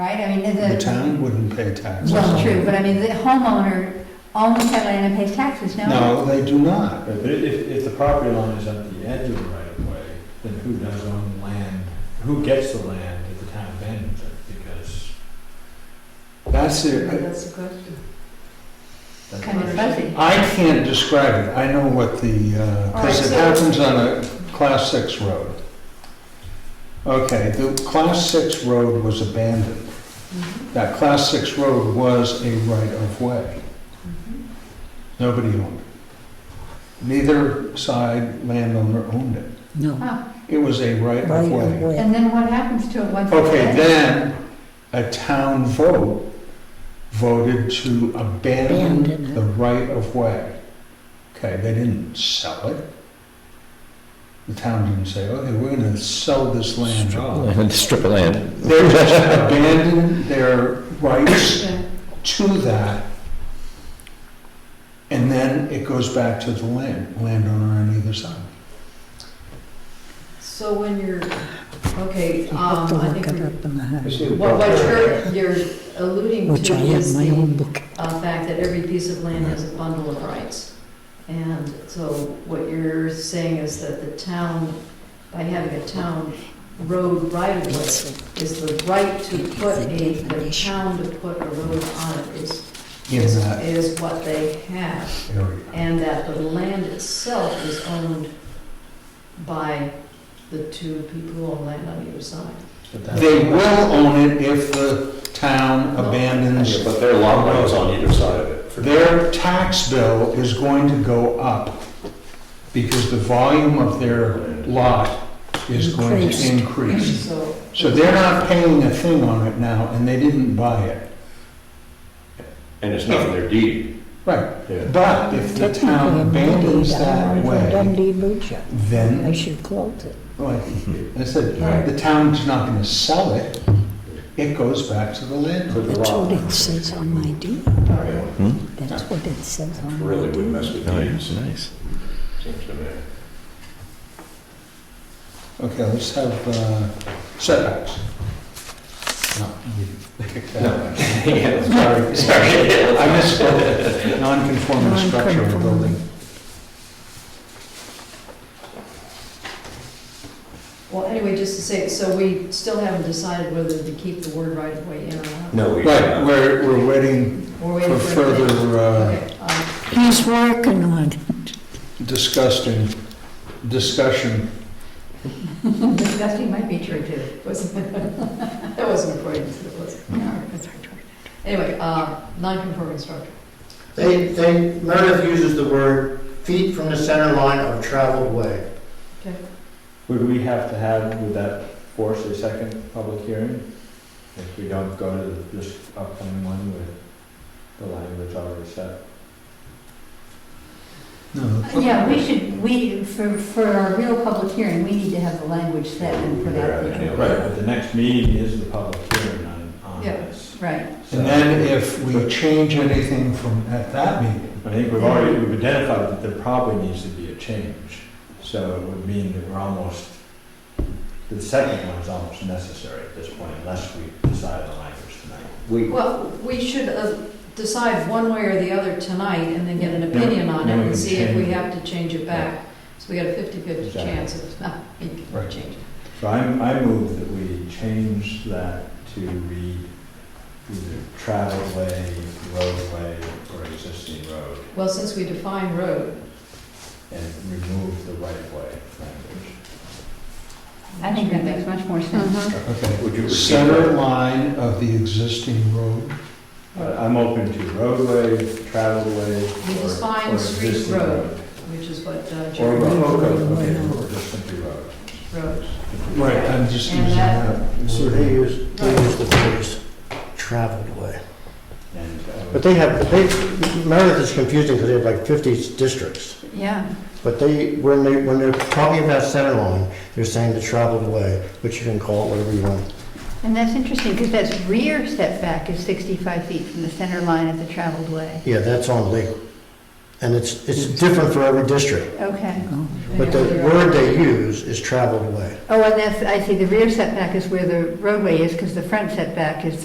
right? I mean, the. The town wouldn't pay taxes. Uh, Well, true, but I mean, the homeowner owns that land and pays taxes, no? No, they do not. Right, But if, if the property line is at the edge of the right of way, then who does own the land? Who gets the land if the town abandons it? Because That's it. That's the question. that's Kind of fuzzy. I can't describe it. I know what the, All right, because it so- happens on a class six road. Okay, the class six road was abandoned. Mm-hmm. That class six road was a right of way. Nobody owned it. Neither side landowner owned it. No. Oh, It was a right Right of of way. way. And then what happens to it once? it's Okay, dead? then, a town vote voted to Abandon abandon it. the right of way. Okay, they didn't sell it. The town didn't say, okay, we're gonna sell this land off. Strip- Strip of land. They just abandoned their rights Yeah. to that. And then it goes back to the land, landowner on either side. So when you're, okay, You have to um, I look think, it we're- up in the house, what, what you're, you're alluding which to I have is my the own book. uh, fact that every piece of land has a bundle of rights. And so what you're saying is that the town, by having a town road right of way, is the right to put a, the town to put a road on it is, In is- that is what they have. area. And that the land itself is owned by the two people who own land on either side. But that's- They will own it if the town abandons But their lot line is on either side of it. for- Their tax bill is going to go up because the volume of their lot is going to Increased. increase. So. So they're not paying a thing on it now, and they didn't buy it. And it's not in their deed. Right, Yeah. but if the Technically, town I'm abandons Dundee, I'm that from way, Dundee, Lucia. I then, should close it. like I said, the town's not gonna sell it. It goes back to the landlord. That's what it says on my deed. Hmm? That's what it says on my Really would deed. mess with Oh, Nice, deeds, nice. seems to me. Okay, let's have uh, setbacks. No, you kicked that out. Yeah, Sorry, sorry, I misspoke. Non-conforming structure or building. Non-conforming. Well, anyway, just to say, so we still haven't decided whether to keep the word right of way in or not. No, we. Right, we're, we're waiting We're for waiting for. further uh, Okay, um, He's working on it. disgusting, discussion. uh, Disgusting might be true too. wasn't- That wasn't important, it wasn't. Anyway, uh, non-conforming structure. They, they, Meredith uses the word feet from the center line of traveled way. Would we have to have, would that force a second public hearing? If we don't go to this upcoming one with the language already set? No, Yeah, we should, we, for, for our real public hearing, we need to have the language set and put out there. Right, but the next meeting is the public hearing on, on Yeah. this. Right, So- And then if we change anything from, at that meeting, I think we've already, we've identified that there probably needs to be a change. So it would mean that we're almost, the second one is almost necessary at this point unless we decide on language tonight. We, Well, we should uh, decide one way or the other tonight and then get an opinion on it Then we can and see if we change it. have to change it back. So we got a fifty-fifty Exactly. chance of not making a Right. change. So I, I move that we change that to read either travel way, roadway, or existing road, Well, since we define road, and remove the right of way language. I think that makes much more sense. okay. would you repeat Center that? line of the existing road. But I'm open to roadway, travel way, We or define or street existing road. road. which is what uh, Or Jeremy road, Road, okay, road. okay, or just simply road. wrote. Right. I'm just And using that- that. So they use, they use the phrase traveled way. And, uh, But they have, they, Meredith is confusing because they have like 50 districts. Mm-hmm. Yeah, But they, when they, when they're talking about center line, they're saying the traveled way, which you can call it whatever you want. and that's interesting, because that's rear setback is 65 feet from the center line of the traveled way. Yeah, that's on legal. And it's, it's different for every district. Okay. Oh, But the word they use is traveled way. Oh, and that's, I see, the rear setback is where the roadway is, because the front setback is